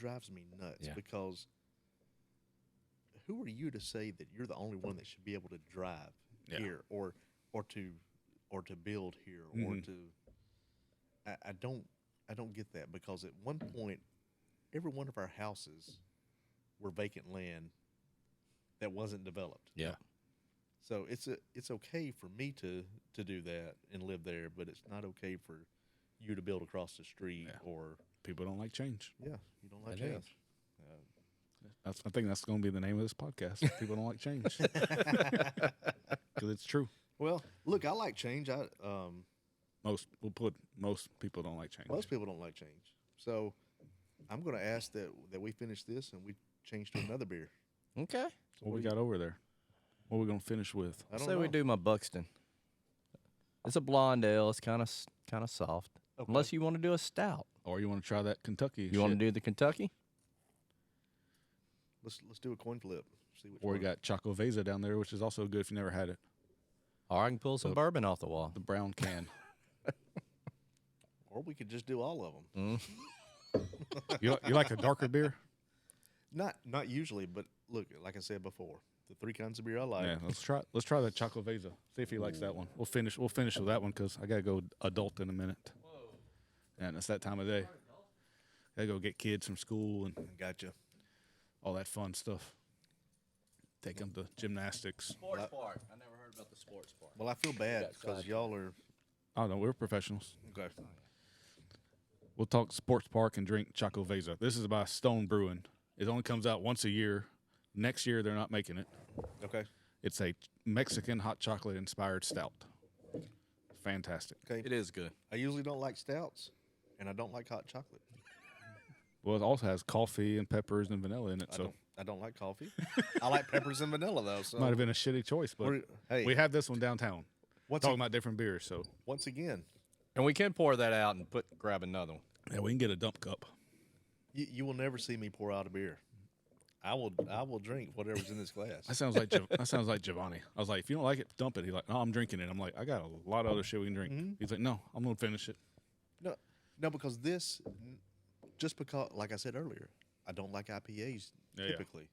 drives me nuts Yeah. because who are you to say that you're the only one that should be able to drive Yeah. here or or to or to build here or Mm-hmm. to I, I don't I don't get that because at one point every one of our houses were vacant land that wasn't developed. Yeah. So it's a, it's okay for me to to do that and live there, but it's not okay for you to build across the street Yeah. or People don't like change. yeah, you don't like It is. that. That's, I think that's going to be the name of this podcast. People don't like change. Because it's true. Well, look, I like change. I um, Most we'll put most people don't like change. most people don't like change, so I'm going to ask that that we finish this and we change to another beer. Okay. what we got over there? What we gonna finish with? I don't say know. we do my Buxton. It's a blonde ale. It's kind of kind of soft. Unless you want to do a stout. Or you want to try that Kentucky? You want to do the Kentucky? Let's let's do a coin flip. See which Or we one. got Choco Vesa down there, which is also good if you never had it. Or I can pull some bourbon off the wall. The brown can. or we could just do all of them. you, li- you like a darker beer? Not not usually, but look, like I said before, the three kinds of beer I like. Yeah, let's try let's try the Choco Vesa. See if he likes that one. We'll finish we'll finish with that one because I gotta go adult in a minute. And it's that time of day. Gotta go get kids from school and Gotcha. all that fun stuff. Take them to gymnastics. Sports part. I never heard about the sports part. Well, I feel bad because y'all are I don't know. We're professionals. okay. We'll talk sports park and drink Choco Vesa. This is by Stone Brewing. It only comes out once a year. Next year they're not making it. Okay. It's a Mexican hot chocolate inspired stout. Fantastic. Okay. It is good. I usually don't like stouts, and I don't like hot chocolate. Well, it also has coffee and peppers and vanilla in it, I so don't. I don't like coffee. I like peppers and vanilla though. So might have been a shitty choice, but We're- hey. we have this one downtown. What's Talking a- about different beers, so once again, And we can pour that out and put grab another one. yeah, we can get a dump cup. you, you will never see me pour out a beer. I will. I will drink whatever's in this glass. That sounds like Giov- that sounds like Giovanni. I was like, if you don't like it, dump it. He's like, no, I'm drinking it. I'm like, I got a lot of other shit we can drink. He's like, no, I'm gonna finish it. No, no, because this, n- just because, like I said earlier, I don't like IPAs Yeah, yeah. typically.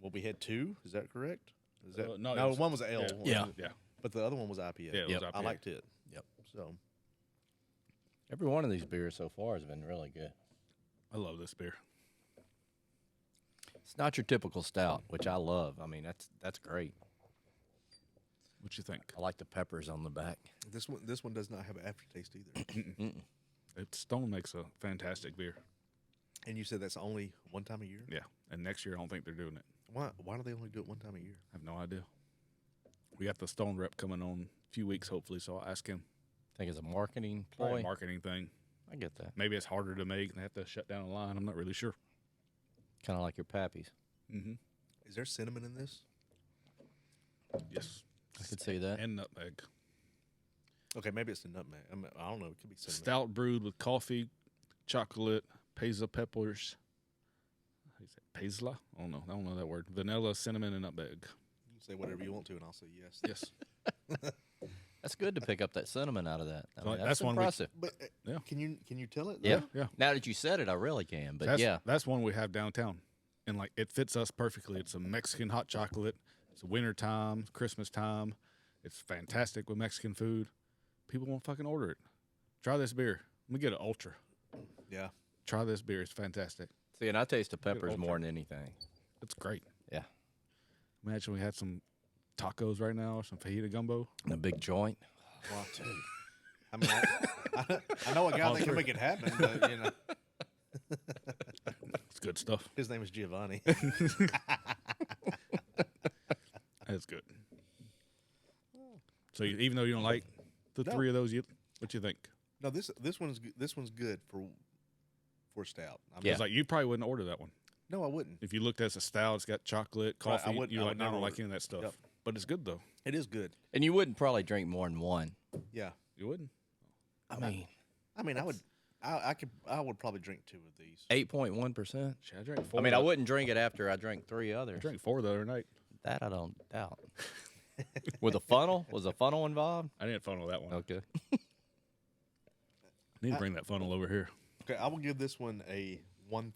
Well, we had two. Is that correct? Is that Uh, no, no? it was- one was an L. yeah. one- Yeah. Yeah, but the other one was IPA. Yeah, it was Yep. I IPA. liked it. Yep. So Every one of these beers so far has been really good. I love this beer. It's not your typical stout, which I love. I mean, that's that's great. What you think? I like the peppers on the back. this one, this one does not have an aftertaste either. It, Stone makes a fantastic beer. and you said that's only one time a year. Yeah, and next year I don't think they're doing it. Why? Why do they only do it one time a year? I have no idea. We got the Stone rep coming on a few weeks, hopefully. So I'll ask him. think it's a marketing Probably a ploy. marketing thing. I get that. Maybe it's harder to make. and They have to shut down a line. I'm not really sure. Mm-hmm. Kind of like your pappies. Is there cinnamon in this? Yes, I could see that. and nutmeg. Okay, maybe it's the nutmeg. I, mean, I don't know. It could be cinnamon. Stout brewed with coffee, chocolate, pesa peppers. How you say Pesla? I don't know. I don't know that word. Vanilla, cinnamon, and nutmeg. You can say whatever you want to, and I'll say yes. Yes. That's good to pick up that cinnamon out of that. I So mean, that's that's, one we- impressive. But uh, Yeah. can you can you tell it? yeah. though? yeah. Now that you said it, I really can. But That's, yeah, That's one we have downtown. And like it fits us perfectly. It's a Mexican hot chocolate. It's winter time, Christmas time. It's fantastic with Mexican food. People won't fucking order it. Try this beer. Let me get an ultra. Yeah. Try this beer. It's fantastic. see, and I taste the peppers Ultra. more than anything. It's great. Yeah, Imagine we had some tacos right now, some fajita gumbo. and a big joint. Well, I mean, I, I, I know a guy that can make it happen, but you know, It's good stuff. his name is Giovanni. That's good. So you, even though you don't like the No. three of those, you what you think? no, this this one's g- this one's good for for stout. I mean, Yeah. It's like you probably wouldn't order that one No, I wouldn't. if you looked at it as a style. It's got chocolate, Right, I coffee. wouldn't- you I like would never not like order any of that stuff, Yep. but it's good though. It is good. And you wouldn't probably drink more than one. Yeah. You wouldn't. I mean, I mean, I would. I, I could. I would probably drink two of these. eight point one percent. Shit, I drank four. I mean, I the- wouldn't drink it after I drank three I others. drank four the other night. That I don't doubt. With a funnel? Was a funnel involved? I didn't funnel that one. Okay. Need to bring that funnel over here. Okay, I will give this one a one